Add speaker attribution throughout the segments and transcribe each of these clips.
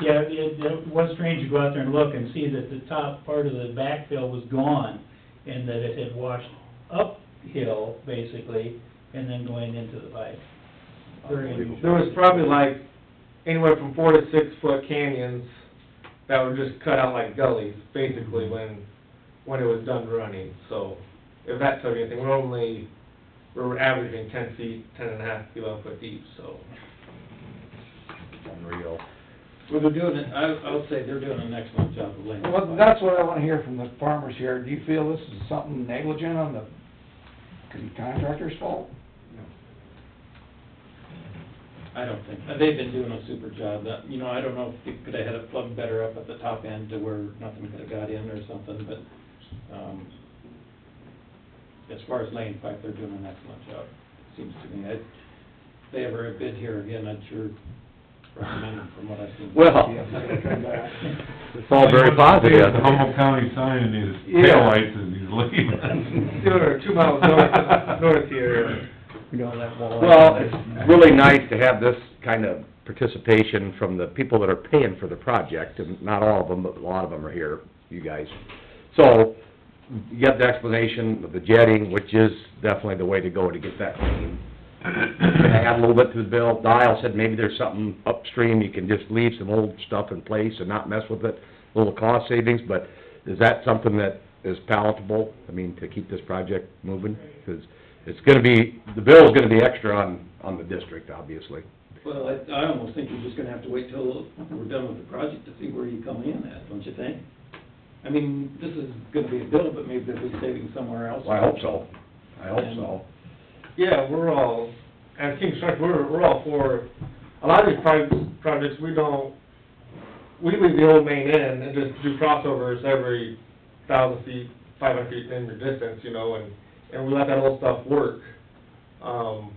Speaker 1: Yeah, it, it was strange to go out there and look and see that the top part of the backfill was gone, and that it had washed uphill, basically, and then going into the pipe. Very unusual.
Speaker 2: There was probably like anywhere from four to six foot canyons that were just cut out like gullies, basically, when, when it was done running, so. If that tells you anything, we're only, we're averaging ten feet, ten and a half feet off foot deep, so.
Speaker 3: Unreal.
Speaker 4: Well, they're doing it, I, I'll say they're doing an excellent job of laying.
Speaker 5: Well, that's what I wanna hear from the farmers here. Do you feel this is something negligent on the contractor's fault?
Speaker 4: I don't think, they've been doing a super job, that, you know, I don't know if they could have had it plugged better up at the top end to where nothing could have got in or something, but, um, as far as laying pipe, they're doing an excellent job, seems to me. I, if they ever bid here again, I'd sure recommend them from what I've seen.
Speaker 3: Well, it's all very positive.
Speaker 6: The Humboldt County sign in his
Speaker 2: Yeah.
Speaker 6: taillights as he's leaving.
Speaker 2: Two or two miles north, north here.
Speaker 3: Well, it's really nice to have this kind of participation from the people that are paying for the project, and not all of them, but a lot of them are here, you guys. So, you got the explanation of the jetting, which is definitely the way to go to get that clean. And I Add a little bit to the bill, Dial said maybe there's something upstream, you can just leave some old stuff in place and not mess with it, little cost savings, but is that something that is palatable? I mean, to keep this project moving, 'cause it's gonna be, the bill's gonna be extra on, on the district, obviously.
Speaker 4: Well, I, I almost think you're just gonna have to wait till we're done with the project to see where you come in at, don't you think? I mean, this is gonna be a bill, but maybe there'll be savings somewhere else.
Speaker 3: Well, I hope so, I hope so.
Speaker 2: Yeah, we're all, at King Structure, we're, we're all for, a lot of these pro- projects, we don't, we leave the old main in and just do crossovers every thousand feet, five hundred feet in your distance, you know, and, and we let that old stuff work. Um,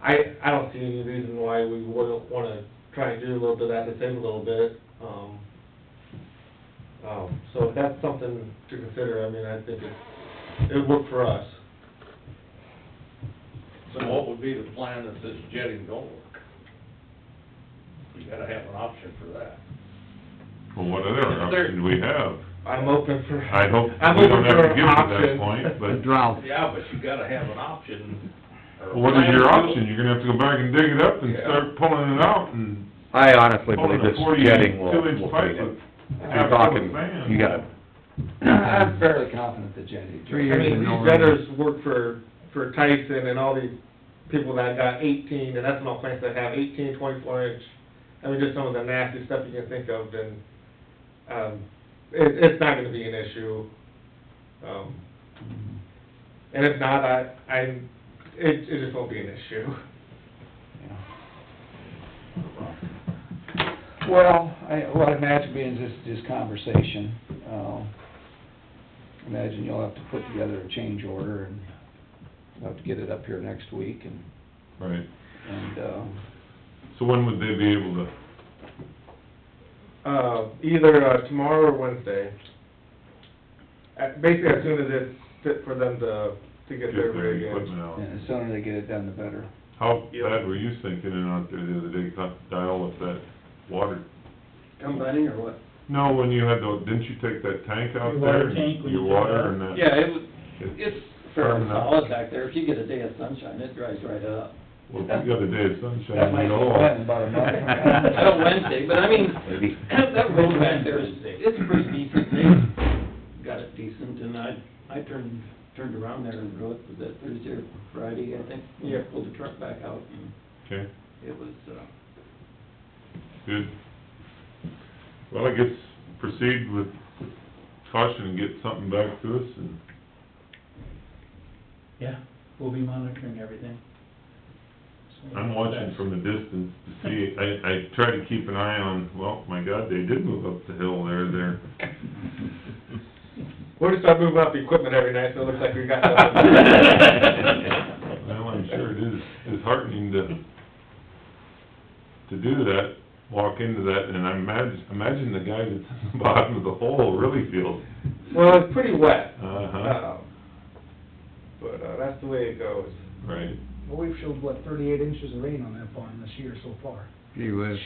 Speaker 2: I, I don't see any reason why we wouldn't wanna try and do a little bit of that to save a little bit, um, um, so if that's something to consider, I mean, I think it, it worked for us.
Speaker 7: So what would be the plan if this jetting don't work? You gotta have an option for that.
Speaker 6: Well, what other option do we have?
Speaker 2: I'm open for.
Speaker 6: I hope
Speaker 2: I'm
Speaker 6: we
Speaker 2: open
Speaker 6: don't have
Speaker 2: for
Speaker 6: to give it to
Speaker 2: options.
Speaker 6: that point, but,
Speaker 3: drought.
Speaker 7: Yeah, but you gotta have an option. or a
Speaker 6: well, what is
Speaker 7: plan
Speaker 6: your
Speaker 7: to-
Speaker 6: option? You're gonna have to go back and dig it up and
Speaker 7: Yeah.
Speaker 6: start pulling it out
Speaker 3: Mm.
Speaker 6: and
Speaker 3: I honestly
Speaker 6: pulling
Speaker 3: believe
Speaker 6: a
Speaker 3: this jetting will, will
Speaker 6: forty-two inch pipe
Speaker 3: clean
Speaker 6: with
Speaker 3: it. You're
Speaker 6: half full of
Speaker 3: talking,
Speaker 6: sand.
Speaker 3: you gotta,
Speaker 5: I'm fairly confident the jetty.
Speaker 2: I mean, these vendors work for, for Tyson and all these people that got eighteen, and ethanol plants that have eighteen, twenty-four inch. I mean, just some of the nasty stuff you can think of, and, um, it, it's not gonna be an issue. Um, and if not, I, I, it, it just won't be an issue.
Speaker 5: Well, I, what I imagine being is this, this conversation, uh, imagine you'll have to put together a change order and you'll have to get it up here next week and,
Speaker 6: Right,
Speaker 5: and, uh,
Speaker 6: so when would they be able to,
Speaker 2: Uh, either uh, tomorrow or Wednesday. Uh, Basically, as soon as it's fit for them to, to
Speaker 6: get
Speaker 2: get their
Speaker 6: their
Speaker 2: rig in.
Speaker 6: equipment out?
Speaker 5: and the sooner they get it done, the better.
Speaker 6: How bad were you thinking it out there the other day, cut dial with that water?
Speaker 4: Combining or what?
Speaker 6: No, when you had the, didn't you take that tank out
Speaker 1: Your water
Speaker 6: there? and
Speaker 1: tank when
Speaker 6: Your
Speaker 1: you did that?
Speaker 6: water and that?
Speaker 4: Yeah, it was,
Speaker 6: It-
Speaker 4: it's fairly solid back there. If you get a day of sunshine, it dries right up.
Speaker 6: Well, the other day, it's sunshine,
Speaker 5: That might
Speaker 6: you
Speaker 5: be
Speaker 6: know.
Speaker 5: wet in about a month.
Speaker 4: I don't Wednesday, but I mean,
Speaker 3: maybe,
Speaker 4: that road back there is, it's pretty decent. They got it decent and I, I turned, turned around there and rode, was that Thursday or Friday, I think?
Speaker 2: Yeah.
Speaker 4: Pulled the truck back out and
Speaker 6: Okay,
Speaker 4: it was, uh,
Speaker 6: good. Well, I guess proceed with caution and get something back to us and,
Speaker 1: Yeah, we'll be monitoring everything. So-
Speaker 6: I'm watching from the distance to see, I, I try to keep an eye on, well, my God, they did move up the hill there, they're,
Speaker 2: We're just gonna move out the equipment every night, so it looks like we got something.
Speaker 6: well, I'm sure it is disheartening to, to do that, walk into that, and I imagine, imagine the guy that's at the bottom of the hole really feels,
Speaker 2: Well, it's pretty wet,
Speaker 6: uh-huh,
Speaker 2: um, but, uh, that's the way it goes.
Speaker 6: right.
Speaker 8: Well, we've showed, what, thirty-eight inches of rain on that farm this year so far.
Speaker 5: Gee whiz.